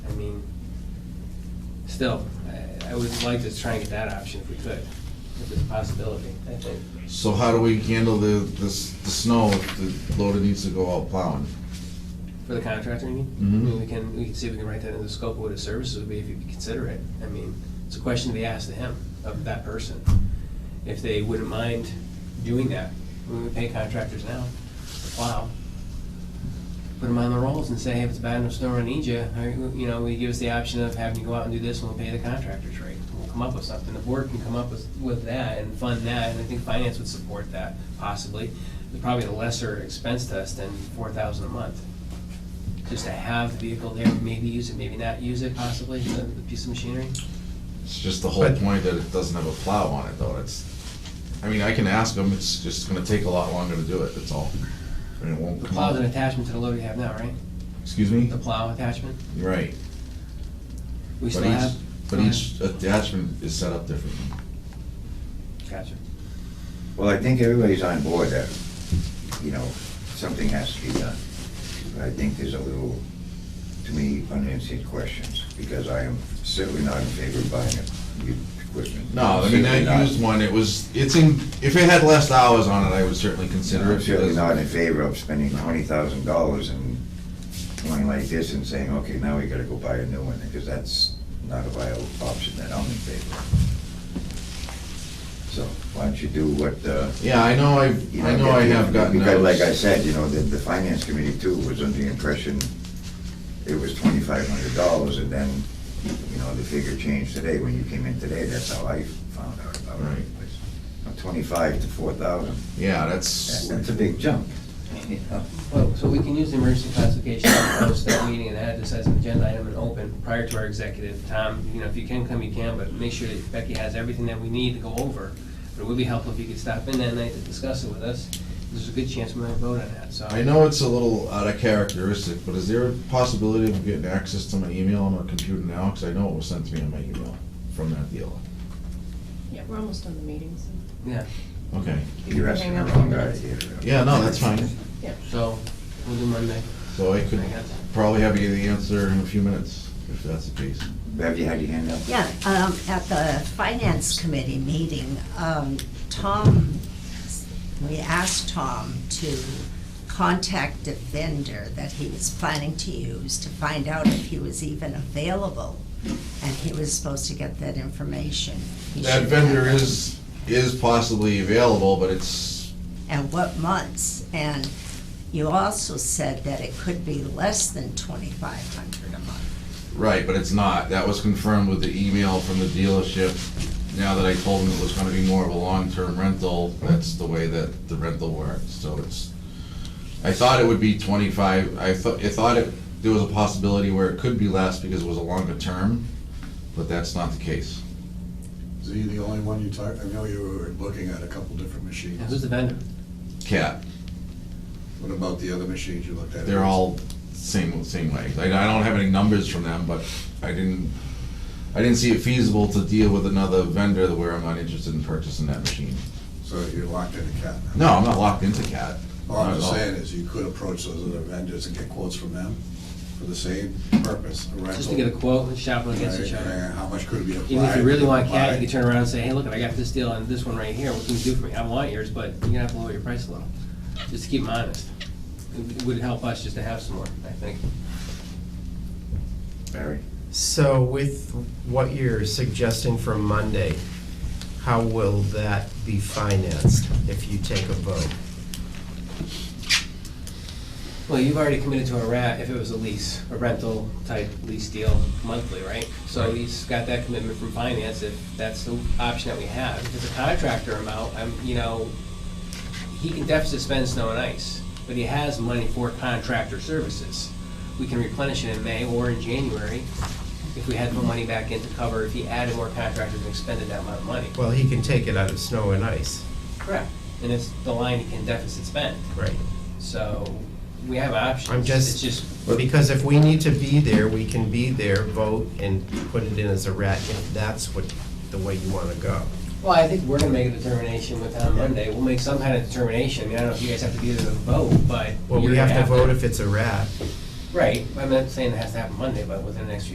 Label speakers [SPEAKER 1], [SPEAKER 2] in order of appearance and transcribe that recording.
[SPEAKER 1] still, I- I would like to try and get that option if we could, if it's a possibility, I think.
[SPEAKER 2] So how do we handle the, the, s- the snow if the loader needs to go out plowing?
[SPEAKER 1] For the contractor, you mean?
[SPEAKER 2] Mhm.
[SPEAKER 1] I mean, we can, we can see if we can write that in the scope of what his services would be if you'd consider it. I mean, it's a question to be asked to him, of that person, if they wouldn't mind doing that. I mean, We pay contractors now to plow. Put them on the rolls and say, hey, if it's bad enough snow, I need you. Or, You know, we give us the option of having you go out and do this and we'll pay the contractor's rate. We'll come up with something. The board can come up with, with that and fund that, and I think finance would support that possibly. It's Probably a lesser expense to us than four thousand a month just to have the vehicle there, maybe use it, maybe not use it possibly, the the piece of machinery?
[SPEAKER 2] It's just the whole
[SPEAKER 3] But-
[SPEAKER 2] point that it doesn't have a plow on it though, it's, I mean, I can ask them, it's just gonna take a lot longer to do it, that's all. And it won't
[SPEAKER 1] The
[SPEAKER 2] come
[SPEAKER 1] plow's an
[SPEAKER 2] out.
[SPEAKER 1] attachment to the loader you have now, right?
[SPEAKER 2] Excuse me?
[SPEAKER 1] The plow attachment?
[SPEAKER 2] You're Right.
[SPEAKER 1] We
[SPEAKER 2] But
[SPEAKER 1] still
[SPEAKER 2] each-
[SPEAKER 1] have?
[SPEAKER 2] But each attachment is set up differently.
[SPEAKER 1] Gotcha.
[SPEAKER 3] Well, I think everybody's on board that, you know, something has to be done. But I think there's a little, to me, unanswered questions, because I am certainly not in favor of buying a used equipment.
[SPEAKER 2] No, I mean,
[SPEAKER 3] Certainly not.
[SPEAKER 2] I used one, it was, it's in, if it had less hours on it, I would certainly consider
[SPEAKER 3] I'm
[SPEAKER 2] it.
[SPEAKER 3] certainly
[SPEAKER 2] because-
[SPEAKER 3] not in favor of spending twenty thousand dollars and going like this and saying, okay, now we gotta go buy a new one, because that's not a viable option that I'm in favor of. So, why don't you do what, uh,
[SPEAKER 2] Yeah, I know, I,
[SPEAKER 3] You
[SPEAKER 2] I know I
[SPEAKER 3] that-
[SPEAKER 2] have gotten
[SPEAKER 3] Because like I
[SPEAKER 2] those.
[SPEAKER 3] said, you know, the, the finance committee too was under the impression it was twenty-five hundred dollars and then, you know, the figure changed today. When you came in today, that's how I found out about it.
[SPEAKER 2] Right.
[SPEAKER 3] From Twenty-five to four thousand,
[SPEAKER 2] Yeah, that's,
[SPEAKER 3] that's a big jump, you know?
[SPEAKER 1] Well, so we can use the emergency classification to post that meeting and add this as an agenda item and open prior to our executive. Tom, you know, if you can come, you can, but make sure that Becky has everything that we need to go over. But it would be helpful if you could stop in that night to discuss it with us. There's a good chance we might vote on that, so.
[SPEAKER 2] I know it's a little out of characteristic, but is there a possibility of getting access to my email on my computer now? Because I know it was sent to me on my email from that dealer.
[SPEAKER 4] Yeah, we're almost done the meetings.
[SPEAKER 1] Yeah,
[SPEAKER 2] Okay,
[SPEAKER 3] You're asking the wrong guy here.
[SPEAKER 2] yeah, no, that's fine.
[SPEAKER 1] so we'll do Monday,
[SPEAKER 2] So I
[SPEAKER 1] I
[SPEAKER 2] could
[SPEAKER 1] guess.
[SPEAKER 2] probably have you the answer in a few minutes, if that's the case.
[SPEAKER 3] Have you had your hand up?
[SPEAKER 5] Yeah, um, at the finance committee meeting, um, Tom, we asked Tom to contact a vendor that he was planning to use to find out if he was even available, and he was supposed to get that information. He
[SPEAKER 2] That
[SPEAKER 5] should have
[SPEAKER 2] vendor
[SPEAKER 5] it.
[SPEAKER 2] is, is possibly available, but it's,
[SPEAKER 5] And what months, and you also said that it could be less than twenty-five hundred a month.
[SPEAKER 2] right, but it's not. That was confirmed with the email from the dealership. Now that I told them it was gonna be more of a long-term rental, that's the way that the rental works, so it's, I thought it would be twenty-five, I thought, I thought it, there was a possibility where it could be less because it was a longer term, but that's not the case.
[SPEAKER 6] Is he the only one you talked, I know you were looking at a couple different
[SPEAKER 1] Now, who's
[SPEAKER 6] machines.
[SPEAKER 1] the vendor?
[SPEAKER 2] Cat,
[SPEAKER 6] What about the other machines you looked at?
[SPEAKER 2] They're all same, same way. Like, I don't have any numbers from them, but I didn't, I didn't see it feasible to deal with another vendor where I'm not interested in purchasing that machine.
[SPEAKER 6] So you're locked in a cat.
[SPEAKER 2] No, I'm not locked into CAT. Not
[SPEAKER 6] All Oh, I'm
[SPEAKER 2] at
[SPEAKER 6] just
[SPEAKER 2] all.
[SPEAKER 6] saying is you could approach those other vendors and get quotes from them for the same purpose, a rental.
[SPEAKER 1] Just to get a quote and shop them against each
[SPEAKER 6] Right,
[SPEAKER 1] other.
[SPEAKER 6] and How much could be applied?
[SPEAKER 1] Even if you really want cat,
[SPEAKER 6] applied.
[SPEAKER 1] you can turn around and say, hey, look, I got this deal on this one right here, what can you do for me? I want yours, but you're gonna have to lower your price a little, just to keep them honest. It would help us just to have some more, I think.
[SPEAKER 3] Barry?
[SPEAKER 7] So with what you're suggesting for Monday, how will that be financed if you take a vote?
[SPEAKER 1] Well, you've already committed to a rat if it was a lease, a rental type lease deal monthly, right? So he's got that commitment from finance if that's the option that we have. If it's a contractor amount, I'm, you know, he can deficit spend snow and ice, but he has money for contractor services. We can replenish it in May or in January if we had more money back in to cover, if he added more contractors and expended that amount of money.
[SPEAKER 7] Well, he can take it out of snow and ice,
[SPEAKER 1] Correct. And it's the line he can deficit spend,
[SPEAKER 7] right?
[SPEAKER 1] so we have options.
[SPEAKER 7] I'm just-
[SPEAKER 1] It's just
[SPEAKER 7] Because if we need to be there, we can be there, vote, and put it in as a rat, if that's what, the way you want to go.
[SPEAKER 1] Well, I think we're gonna make a determination with on Monday. We'll make some kind of determination. I mean, I don't know if you guys have to be there to vote, but.
[SPEAKER 7] Well, we
[SPEAKER 1] you're
[SPEAKER 7] have to
[SPEAKER 1] gonna
[SPEAKER 7] vote if it's a rat.
[SPEAKER 1] Right. I'm not saying it has to happen Monday, but within the next few